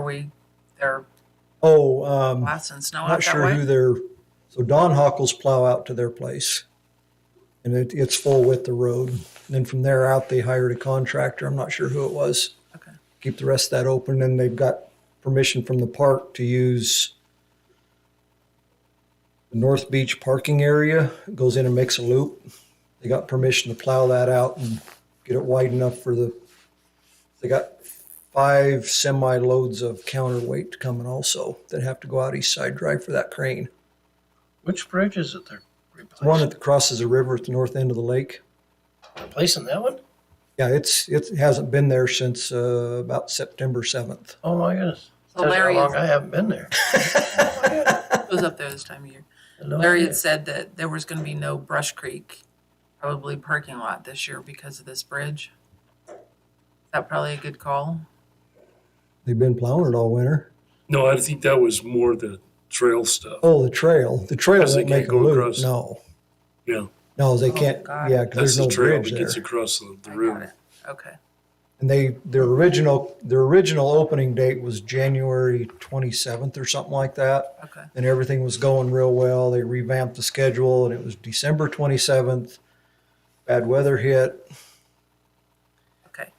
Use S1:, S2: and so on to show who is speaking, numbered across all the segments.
S1: we, their
S2: Oh, um,
S1: license no out
S2: not
S1: that
S2: sure who
S1: way?
S2: they're, so Don Hockles plow out to their place. And it, it's full width the road. And then from there out, they hired a contractor. I'm not sure who it was.
S1: Okay.
S2: Keep the rest of that open and they've got permission from the park to use the North Beach parking area. It Goes in and makes a loop. They got permission to plow that out and get it wide enough for the, they got five semi loads of counterweight coming also that have to go out east side drive for that crane.
S3: Which bridge is it they're
S2: One
S3: replacing?
S2: that crosses the river at the north end of the lake.
S3: Replacing that one?
S2: Yeah, it's it hasn't been there since uh, about September seventh.
S3: Oh my goodness.
S1: So
S3: Tells you
S1: Larry
S3: how long
S1: is-
S3: I haven't been there.
S1: It was up there this time of year.
S2: Oh,
S3: No
S1: Larry
S3: idea.
S1: had said that there was gonna be no Brush Creek, probably parking lot this year because of this bridge. That probably a good call.
S2: They've been plowing it all winter.
S4: No, I think that was more the trail stuff.
S2: Oh, the trail. The trail
S4: Because they
S2: won't make
S4: can't
S2: a
S4: go
S2: loop.
S4: across.
S2: No,
S4: Yeah,
S2: no, they
S1: Oh,
S2: can't.
S1: God.
S2: Yeah, 'cause
S4: that's
S2: there's no
S4: the trail
S2: bridge
S4: that
S2: there.
S4: gets across the, the
S1: I got
S4: river.
S1: it. Okay,
S2: And they their original their original opening date was January twenty seventh or something like that.
S1: okay.
S2: and everything was going real well. They revamped the schedule, and it was December 27th. Bad weather hit.
S1: Okay,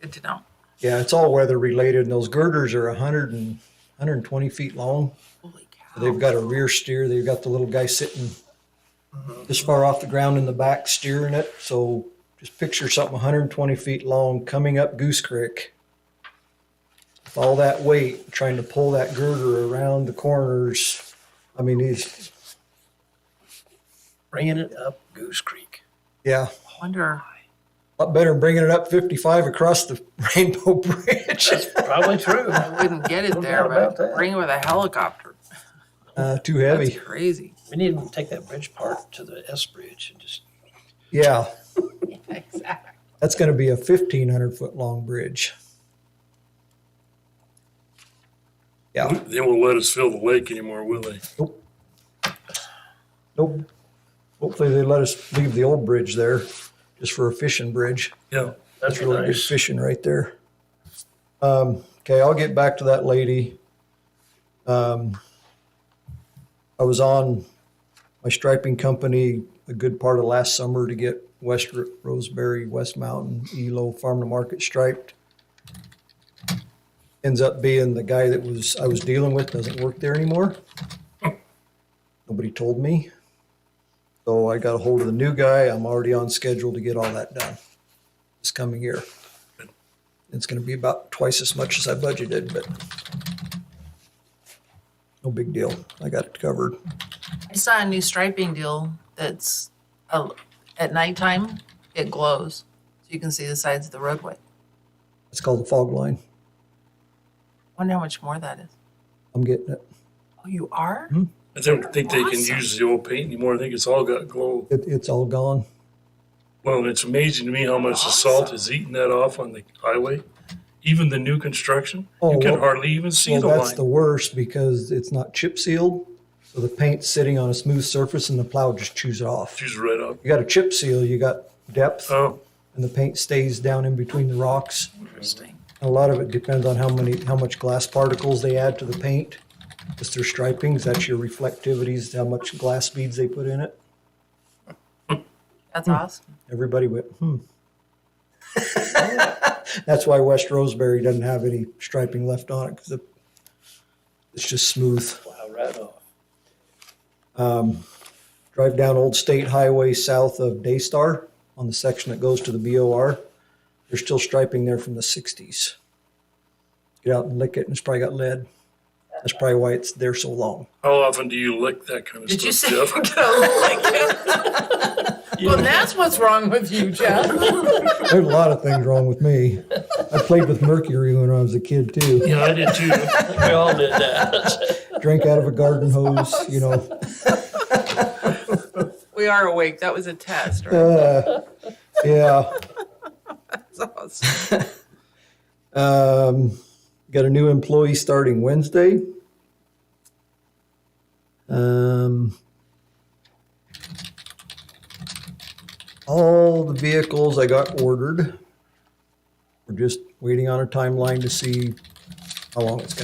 S1: good to know.
S2: Yeah, it's all weather related, and those girders are 100 and 120 feet long.
S1: Holy cow.
S2: They've got a rear steer. They've got the little guy sitting this far off the ground in the back steering it. So just picture something 120 feet long coming up Goose Creek. With all that weight, trying to pull that girder around the corners. I mean, he's,
S3: Bringing it up Goose Creek.
S2: yeah.
S1: I Wonder,
S2: lot better than bringing it up 55 across the Rainbow Bridge.
S3: That's probably true.
S1: I wouldn't get it
S3: No
S1: there,
S3: doubt about
S1: but
S3: that.
S1: bring it with a helicopter.
S2: Uh, too
S1: That's
S2: heavy.
S1: crazy.
S3: We need to take that bridge part to the S Bridge and just,
S2: Yeah,
S1: Exactly.
S2: that's going to be a 1,500 foot long bridge. Yeah,
S4: They won't let us fill the lake anymore, will they?
S2: nope. Hopefully they let us leave the old bridge there just for a fishing bridge.
S4: Yeah.
S3: that's
S2: That's really good
S3: nice.
S2: fishing right there. Um, okay, I'll get back to that lady. Um, I was on my striping company a good part of last summer to get West Ro- Roseberry, West Mountain, Elo Farm to Market striped. Ends up being the guy that was I was dealing with doesn't work there anymore. Nobody told me. So I got a hold of the new guy. I'm already on schedule to get all that done this coming year. It's gonna be about twice as much as I budgeted, but no big deal. I got it covered.
S1: I saw a new striping deal that's, uh, at nighttime, it glows. So you can see the sides of the roadway.
S2: It's called the fog line.
S1: Wonder how much more that is.
S2: I'm getting it.
S1: Oh, you are?
S4: I don't think they can
S1: Awesome.
S4: use the old paint anymore. I think it's all got glow.
S2: It, it's all gone.
S4: Well, it's amazing to me how much the salt is eating that off on the highway. Even the new construction,
S2: Oh,
S4: you can
S2: well-
S4: hardly even see
S2: Well,
S4: the
S2: that's
S4: line.
S2: the worst because it's not chip sealed. So the paint's sitting on a smooth surface and the plow just chews it off.
S4: She's right up.
S2: You got a chip seal, you got depth
S4: Oh,
S2: and the paint stays down in between the rocks.
S1: Interesting.
S2: A lot of it depends on how many, how much glass particles they add to the paint. Just their stripings, that's your reflectivities, how much glass beads they put in it.
S1: That's awesome.
S2: Everybody went, hmm. that's why West Roseberry doesn't have any striping left on it because it's just smooth.
S3: Wow, right off.
S2: Drive down Old State Highway south of Daystar on the section that goes to the BOR. There's still striping there from the 60s. Get out and lick it, and it's probably got lead. That's probably why it's there so long.
S4: how often do you lick that kind of
S1: Did you say
S4: stuff,
S1: you're
S4: Jeff?
S1: gonna lick it? Well, that's what's wrong with you, Jeff.
S2: There's a lot of things wrong with me. I played with mercury when I was a kid too.
S4: Yeah, I did too.
S3: We all did that.
S2: Drank out of a garden hose, you know.
S1: We are awake. That was a test, right?
S2: Uh, yeah.
S1: That's awesome.
S2: Um, got a new employee starting Wednesday. Um, all the vehicles I got ordered. We're just waiting on a timeline to see how long it's going to.